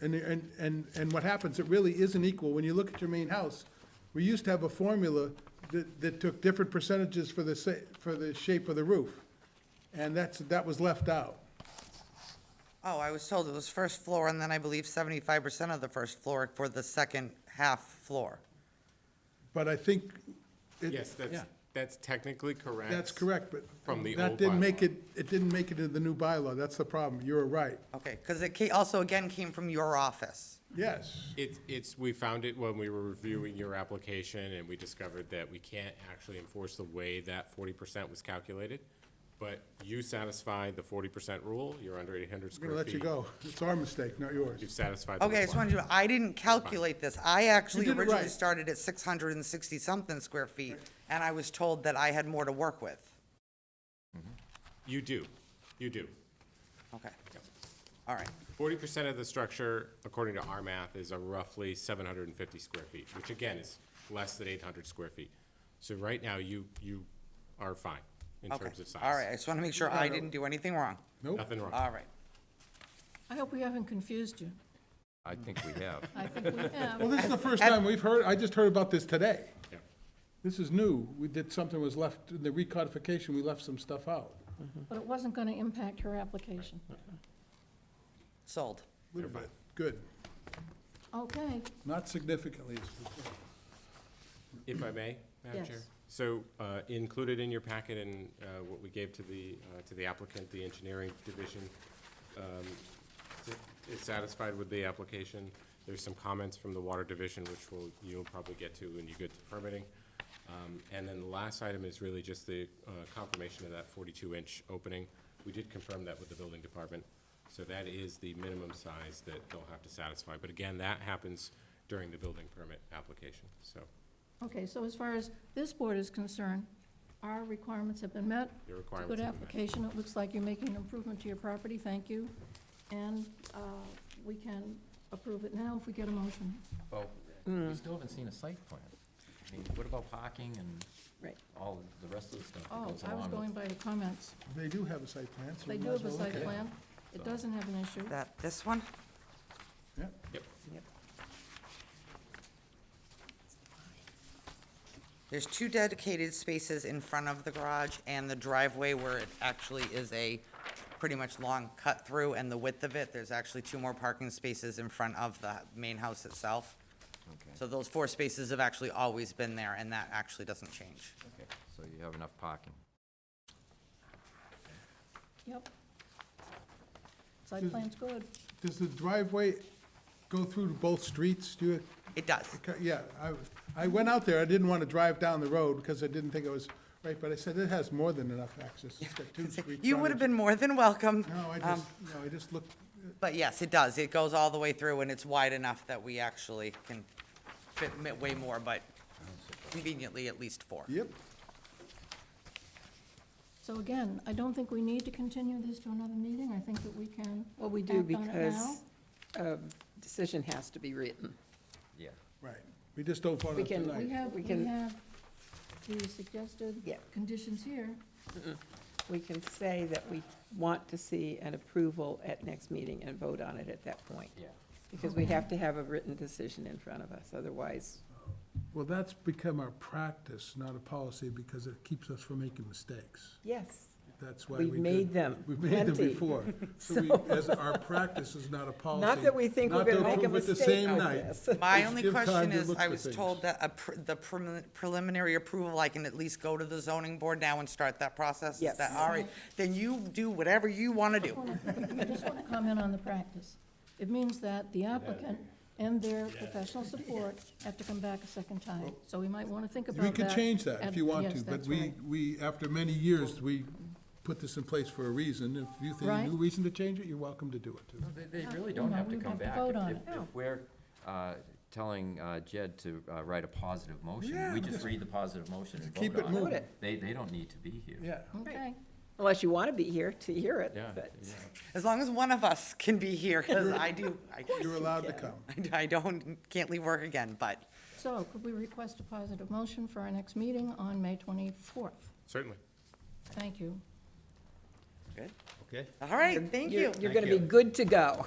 And, and, and, and what happens, it really isn't equal. When you look at your main house, we used to have a formula that, that took different percentages for the sa, for the shape of the roof. And that's, that was left out. Oh, I was told it was first floor, and then I believe seventy-five percent of the first floor for the second half floor. But I think. it- Yes, that's, yeah, that's technically correct. That's correct, but. From the That old didn't bylaw. make it, it didn't make it into the new bylaw. That's the problem. You're right. Okay, because it ca- also again came from your office. Yes. It's, it's, we found it when we were reviewing your application, and we discovered that we can't actually enforce the way that forty percent was calculated. But you satisfied the forty percent rule, you're under eight hundred I'm square gonna let feet. you go. It's our mistake, not yours. You've satisfied the Okay, I just wanted requirement. to, I didn't calculate this. I actually did it originally right. started at six hundred and sixty-something square feet, and I was told that I had more to work with. You do, you do. Okay. All right, Forty percent of the structure, according to our math, is a roughly seven hundred and fifty square feet, which again is less than eight hundred square feet. So right now, you, you are fine in okay. terms of size. All right, I just want to make sure I didn't do anything wrong. Nope. Nothing wrong. All right. I hope we haven't confused you. I think we have. I think we Well, have. this is the first time we've heard, I just heard about this today. Yeah. This is new. We did, something was left, in the recodification, we left some stuff out. But it wasn't going to impact her application. Sold. A Little bit, good. Okay, Not significantly. is- If I may, Madam Chair? Yes. So uh, included in your packet and uh, what we gave to the, uh, to the applicant, the engineering division, um, is satisfied with the application. There's some comments from the water division, which will, you'll probably get to when you get to permitting. Um, And then the last item is really just the uh, confirmation of that 42-inch opening. We did confirm that with the building department. So that is the minimum size that they'll have to satisfy. But again, that happens during the building permit application, so. okay, so as far as this board is concerned, our requirements have been met. Your It's a requirements have been met. Good application, it looks like you're making an improvement to your property, thank you. And uh, we can approve it now if we get a motion. Well, we still haven't seen a site plan. I mean, what about parking and Right. all the rest of the stuff that Oh, goes I was along going with? by your comments. They do have a site plan, so. They we do might as have a well look at site it. plan, it doesn't have an issue. That, this one? Yeah. Yep. There's two dedicated spaces in front of the garage and the driveway where it actually is a pretty much long cut through and the width of it, there's actually two more parking spaces in front of the main house itself. So those four spaces have actually always been there and that actually doesn't change. Okay, So you have enough parking. Yep. Site plan's good. Does the driveway go through to both streets? Do you, It does. yeah, I, I went out there, I didn't want to drive down the road because I didn't think it was right, but I said it has more than enough access. It's got two street You would have frontage. been more than welcome. No, I um, just, no, I just looked, But yes, it does. It goes all the way through and it's wide enough that we actually can fit mi- way more, but conveniently at least four. yep, So again, I don't think we need to continue this to another meeting. I think that we can Well, we do act on it now. because a decision has to be written. Yeah. right. We just don't vote on We it can- We tonight. have, We we can- have the suggested Yeah. conditions here. We can say that we want to see an approval at next meeting and vote on it at that point. Yeah. Because we have to have a written decision in front of us, otherwise, Well, that's become our practice, not a policy, because it keeps us from making mistakes. yes, That's why we We've made did- them We've made them plenty. before. So we, as our practice is not a policy. not that we think we're not to gonna make a approve it the mistake same on night. this. My Just only give time question to is, look I for was things. told that a pr- the prelim- preliminary approval, I can at least go to the zoning board now and start that process? Is Yes. that All right, then you do whatever you want to do. I just want to comment on the practice. It means that the applicant and their professional support have to come back a second time. So we might want to think about We that. could change that if and- you want yes, to, but that's we, right. we, after many years, we put this in place for a reason. If you think a Right. new reason to change it, you're welcome to do it too. They, they really don't no, have we to would come have to back. vote If- on if- it. Oh. If we're uh, telling uh, Jed to uh, write a positive motion, Yeah, we just read the positive motion and vote on it. keep it moving. Vote They, they don't need to be here. Yeah. Okay, Unless you want to be here to hear it, Yeah, but yeah. As long as one of us can be here, because I do, I- You're allowed to come. I don't, can't leave work again, but so could we request a positive motion for our next meeting on May 24th? Certainly. Thank you. Good. Okay. All right, thank you're, you. you're going to be good to go.